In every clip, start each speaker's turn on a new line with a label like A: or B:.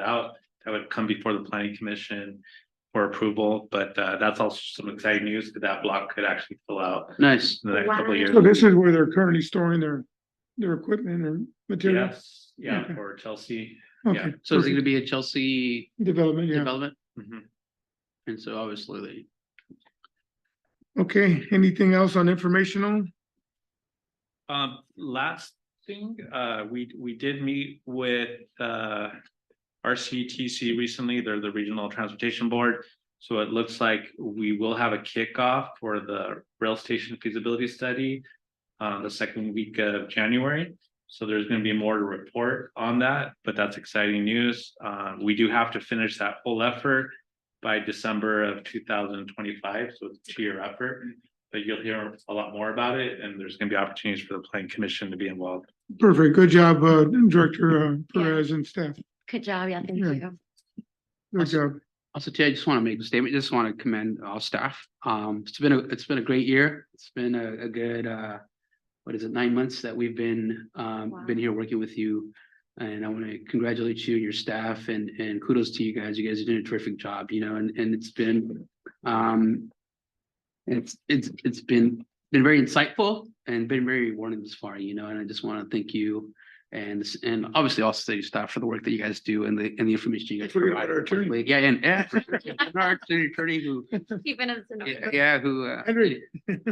A: out, that would come before the planning commission for approval, but uh, that's also some exciting news, because that block could actually fill out
B: Nice.
A: in the next couple of years.
C: So this is where they're currently storing their, their equipment or materials?
A: Yes, yeah,
C: Okay.
A: for Chelsea. yeah.
C: Okay.
B: So is it
C: perfect.
B: gonna be a Chelsea
C: Development, yeah.
B: development?
A: Mhm.
B: And so obviously
C: Okay, anything else on informational?
A: Um, last thing, uh, we, we did meet with, uh. RCTC recently, they're the Regional Transportation Board, so it looks like we will have a kickoff for the rail station feasibility study. Uh, the second week of January, so there's gonna be more to report on that, but that's exciting news. Uh, we do have to finish that whole effort. By December of two thousand twenty-five, so it's a two-year effort but you'll hear a lot more about it and there's gonna be opportunities for the planning commission to be involved.
C: Perfect, good job, uh, Director uh, Perez and staff.
D: Good job, yeah, thank
C: Yeah.
D: you.
C: Good job.
B: Also, Ted, I just want to make a statement, just want to commend all staff. Um, it's been a, it's been a great year. It's been a, a good, uh, what is it, nine months that we've been, um,
D: Wow.
B: been here working with you. And I want to congratulate you and your staff and, and kudos to you guys. You guys are doing a terrific job, you know, and, and it's been, um, it's, it's, it's been, been very insightful and been very rewarding this far, you know, and I just want to thank you and, and obviously all city staff for the work that you guys do and the, and the information you guys
C: Forget
B: provide.
C: about our attorney.
B: Like, Yeah, and, yeah. for sure. And Our attorney- attorney who,
D: Even as. an-
B: yeah, yeah, who, uh,
C: Henry.
D: Thank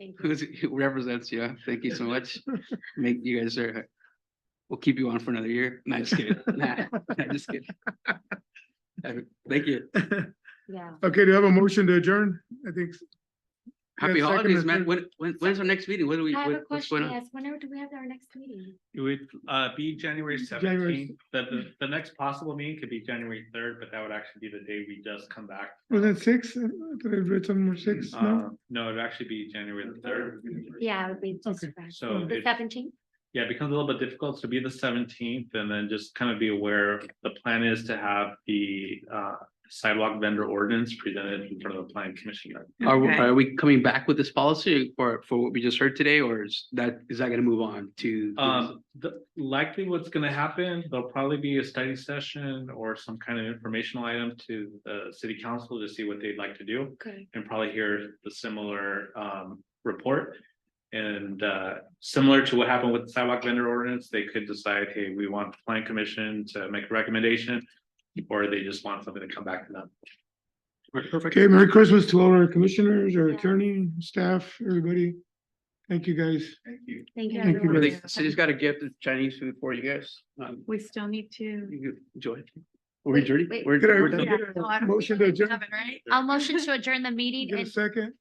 D: you.
B: who's, who represents you. Thank you so much. Make, you guys are, we'll keep you on for another year. No, just kidding. Nah, nah, just kidding. Uh, Thank you.
D: Yeah.
C: Okay, do you have a motion to adjourn? I think,
B: Happy
C: second
B: holidays,
C: or
B: man.
C: third?
B: When, when, when's our next meeting? What do we,
D: I have a
B: what- what's going
D: question,
B: on?
D: yes, whenever do we have our next meeting?
A: It would uh be January
C: January-
A: seventeenth, the the the next possible meeting could be January third, but that would actually be the day we just come back.
C: was it six? I thought I read something more six, no?
A: Uh, no, it'd actually be January the third.
D: Yeah, it would be just
C: Okay.
D: fresh.
A: So
D: The
A: it-
D: seventeenth,
A: Yeah, it becomes a little bit difficult to be the seventeenth and then just kind of be aware, the plan is to have the uh sidewalk vendor ordinance presented in front of the planning commission.
B: Are, we- are we coming back with this policy or for what we just heard today, or is that, is that gonna move on to?
A: Um, the likely what's gonna happen, there'll probably be a study session or some kind of informational item to the city council to see what they'd like to do.
D: okay,
A: And probably hear the similar um report. And uh similar to what happened with the sidewalk vendor ordinance, they could decide, hey, we want the plan commission to make a recommendation. Or they just want something to come back to them.
B: Perfect.
C: Okay, Merry Christmas to all our commissioners, our
D: Yeah.
C: attorney, staff, everybody. Thank you, guys.
A: Thank you.
C: Thank
D: thank you.
C: you,
D: everyone.
B: I
C: Ruth.
B: think the city's got a gift of Chinese food for you guys. Um,
E: We still need to.
B: you can enjoy. it. We're adjourned.
D: wait.
B: We're-
C: Get our-
B: we're done.
C: get
E: No, I
C: our
E: don't
C: Motion to
E: think we
C: adjourn.
E: have it, Right?
D: I'll motion to adjourn the meeting
C: Get a
D: and,
C: second,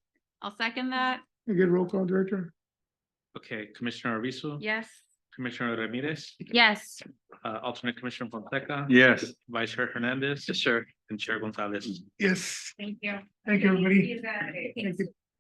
E: I'll second that.
C: You get roll call, Director.
A: Okay, Commissioner Arvizo.
E: Yes.
A: Commissioner Ramirez,
D: yes.
A: uh alternate commissioner Fonseca.
C: Yes.
A: Vice Chair Hernandez
B: Yes, sir.
A: and Chair Gonzalez.
C: Yes.
E: Thank you.
C: Thank you, everybody.
E: guys.
C: Thank you.